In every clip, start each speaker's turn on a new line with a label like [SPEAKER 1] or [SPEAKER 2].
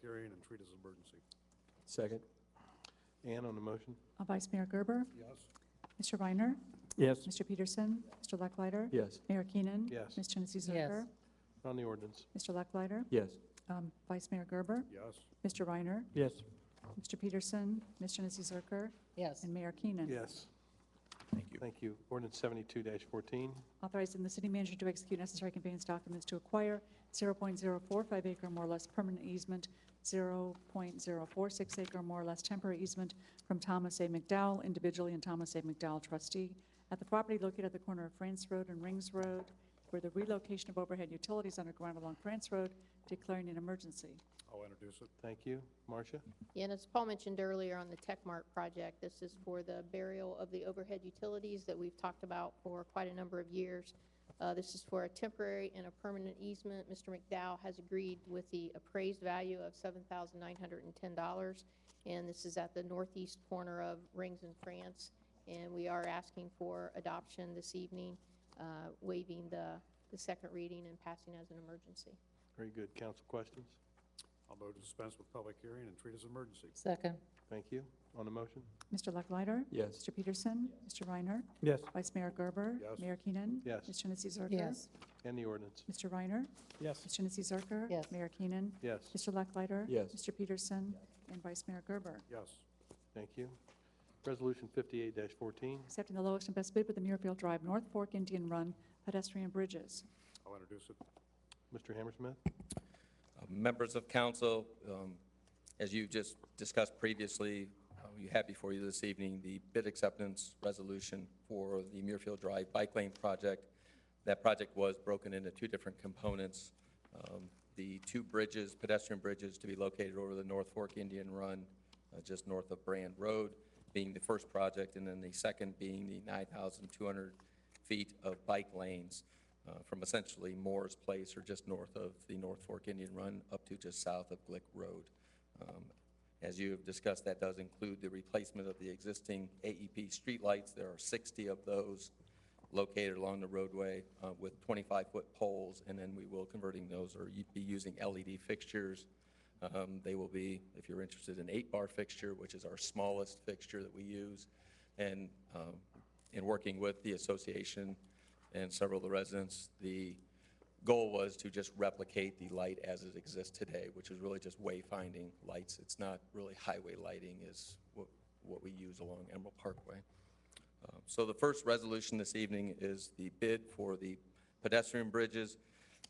[SPEAKER 1] hearing and treat as an emergency.
[SPEAKER 2] Second. Ann on the motion?
[SPEAKER 3] Uh, Vice Mayor Gerber,
[SPEAKER 1] Yes.
[SPEAKER 3] Mr. Reiner,
[SPEAKER 2] Yes.
[SPEAKER 3] Mr. Peterson, Mr. Lucklider,
[SPEAKER 2] Yes.
[SPEAKER 3] Mayor Keenan.
[SPEAKER 2] Yes.
[SPEAKER 3] Ms. Janice Zerker.
[SPEAKER 2] On the ordinance?
[SPEAKER 3] Mr. Lucklider,
[SPEAKER 2] Yes.
[SPEAKER 3] um, Vice Mayor Gerber,
[SPEAKER 1] Yes.
[SPEAKER 3] Mr. Reiner,
[SPEAKER 2] Yes.
[SPEAKER 3] Mr. Peterson, Ms. Janice Zerker,
[SPEAKER 4] Yes,
[SPEAKER 3] and Mayor Keenan.
[SPEAKER 2] Yes. Thank you. Thank you. Ordinance seventy-two fourteen.
[SPEAKER 3] Authorizing the city manager to execute necessary conveyance documents to acquire 0.045 acre more or less permanent easement, 0.046 acre more or less temporary easement from Thomas A. McDowell individually and Thomas A. McDowell trustee at the property located at the corner of France Road and Rings Road, where the relocation of overhead utilities underground along France Road, declaring an emergency.
[SPEAKER 1] I'll introduce it.
[SPEAKER 2] Thank you. Marcia?
[SPEAKER 5] Yeah, and as Paul mentioned earlier on the TechMart project, this is for the burial of the overhead utilities that we've talked about for quite a number of years. Uh, This is for a temporary and a permanent easement. Mr. McDowell has agreed with the appraised value of $7,910, and this is at the northeast corner of Rings and France, and we are asking for adoption this evening, uh, waiving the the second reading and passing as an emergency.
[SPEAKER 2] Very good. Council questions?
[SPEAKER 1] I'll move to dispense with public hearing and treat as an emergency.
[SPEAKER 4] second,
[SPEAKER 2] Thank you. On the motion?
[SPEAKER 3] Mr. Lucklider?
[SPEAKER 2] Yes.
[SPEAKER 3] Mr. Peterson? Mr. Reiner?
[SPEAKER 2] Yes.
[SPEAKER 3] Vice Mayor Gerber?
[SPEAKER 1] Yes.
[SPEAKER 3] Mayor Keenan?
[SPEAKER 2] Yes.
[SPEAKER 3] Ms. Janice Zerker?
[SPEAKER 4] yes,
[SPEAKER 2] And the ordinance?
[SPEAKER 3] Mr. Reiner?
[SPEAKER 2] Yes.
[SPEAKER 3] Ms. Janice Zerker?
[SPEAKER 4] Yes.
[SPEAKER 3] Mayor Keenan?
[SPEAKER 2] Yes.
[SPEAKER 3] Mr. Lucklider?
[SPEAKER 2] Yes.
[SPEAKER 3] Mr. Peterson? And Vice Mayor Gerber.
[SPEAKER 1] Yes.
[SPEAKER 2] Thank you. Resolution fifty-eight fourteen.
[SPEAKER 3] Accepting the lowest and best bid for the Muirfield Drive North Fork Indian Run pedestrian bridges.
[SPEAKER 1] I'll introduce it.
[SPEAKER 2] Mr. Hammersmith?
[SPEAKER 6] Uh, Members of council, um, as you just discussed previously, uh, you have before you this evening the bid acceptance resolution for the Muirfield Drive Bike Lane project. That project was broken into two different components. Um, The two bridges, pedestrian bridges to be located over the North Fork Indian Run, uh, just north of Brand Road, being the first project, and then the second being the 9,200 feet of bike lanes uh, from essentially Moore's Place or just north of the North Fork Indian Run up to just south of Glick Road. Um, As you have discussed, that does include the replacement of the existing AEP streetlights. There are 60 of those located along the roadway uh, with 25-foot poles, and then we will converting those or you'd be using LED fixtures. Um, They will be, if you're interested, an eight-bar fixture, which is our smallest fixture that we use. And um, in working with the association and several of the residents, the goal was to just replicate the light as it exists today, which is really just wayfinding lights. It's not really highway lighting is what what we use along Emerald Parkway. Uh, So the first resolution this evening is the bid for the pedestrian bridges.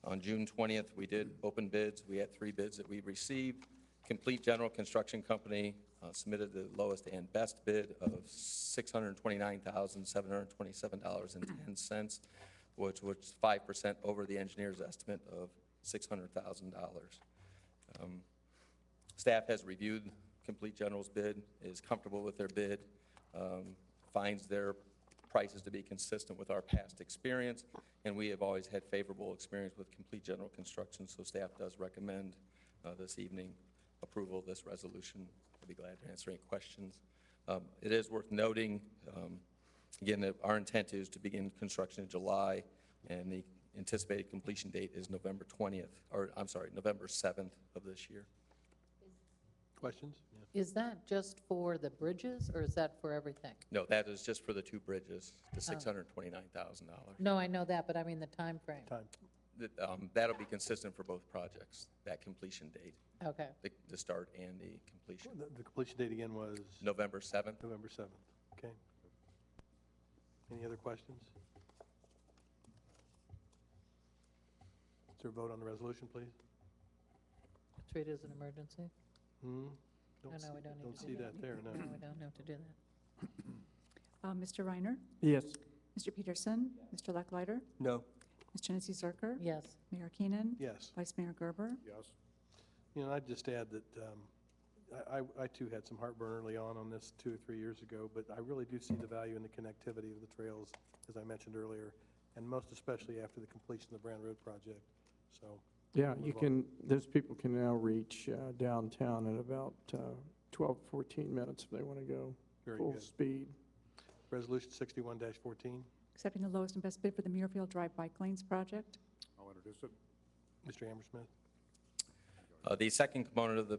[SPEAKER 6] On June 20th, we did open bids. We had three bids that we received. Complete General Construction Company uh, submitted the lowest and best bid of $629,727.10, which was 5% over the engineer's estimate of $600,000. Staff has reviewed Complete General's bid, is comfortable with their bid, um, finds their prices to be consistent with our past experience, and we have always had favorable experience with Complete General Construction, so staff does recommend uh, this evening approval of this resolution. I'd be glad to answer any questions. Um, It is worth noting, um, again, that our intent is to begin construction in July, and the anticipated completion date is November 20th, or, I'm sorry, November 7th of this year.
[SPEAKER 2] Questions?
[SPEAKER 4] is that just for the bridges, or is that for everything?
[SPEAKER 6] No, that is just for the two bridges, the $629,000.
[SPEAKER 4] No, I know that, but I mean the time frame.
[SPEAKER 2] Time.
[SPEAKER 6] That, um, That'll be consistent for both projects, that completion date,
[SPEAKER 4] Okay,
[SPEAKER 6] the- the start and the completion.
[SPEAKER 2] The- The completion date again was?
[SPEAKER 6] November 7th,
[SPEAKER 2] November 7th, okay. Any other questions? Is there a vote on the resolution, please?
[SPEAKER 4] treat it as an emergency?
[SPEAKER 2] Hmm?
[SPEAKER 4] Oh, No,
[SPEAKER 2] see-
[SPEAKER 4] no, we don't need
[SPEAKER 2] Don't
[SPEAKER 4] to
[SPEAKER 2] see
[SPEAKER 4] do that.
[SPEAKER 2] that there, no.
[SPEAKER 4] We don't have to do that.
[SPEAKER 3] Uh, Mr. Reiner,
[SPEAKER 2] Yes.
[SPEAKER 3] Mr. Peterson, Mr. Lucklider,
[SPEAKER 2] No.
[SPEAKER 3] Ms. Janice Zerker,
[SPEAKER 4] Yes,
[SPEAKER 3] Mayor Keenan,
[SPEAKER 2] Yes.
[SPEAKER 3] Vice Mayor Gerber.
[SPEAKER 1] Yes.
[SPEAKER 2] You know, I'd just add that um, I- I I too had some heartburn early on on this two or three years ago, but I really do see the value in the connectivity of the trails, as I mentioned earlier, and most especially after the completion of the Brown Road project, so.
[SPEAKER 7] Yeah, you
[SPEAKER 2] Move on.
[SPEAKER 7] can, those people can now reach uh, downtown in about uh, 12, 14 minutes if they want to go
[SPEAKER 2] Very
[SPEAKER 7] full
[SPEAKER 2] good.
[SPEAKER 7] speed.
[SPEAKER 2] Resolution 61-14,
[SPEAKER 3] Accepting the lowest and best bid for the Muirfield Drive Bike Lanes project.
[SPEAKER 1] I'll introduce it.
[SPEAKER 2] Mr. Hammersmith.
[SPEAKER 6] Uh, the second component of the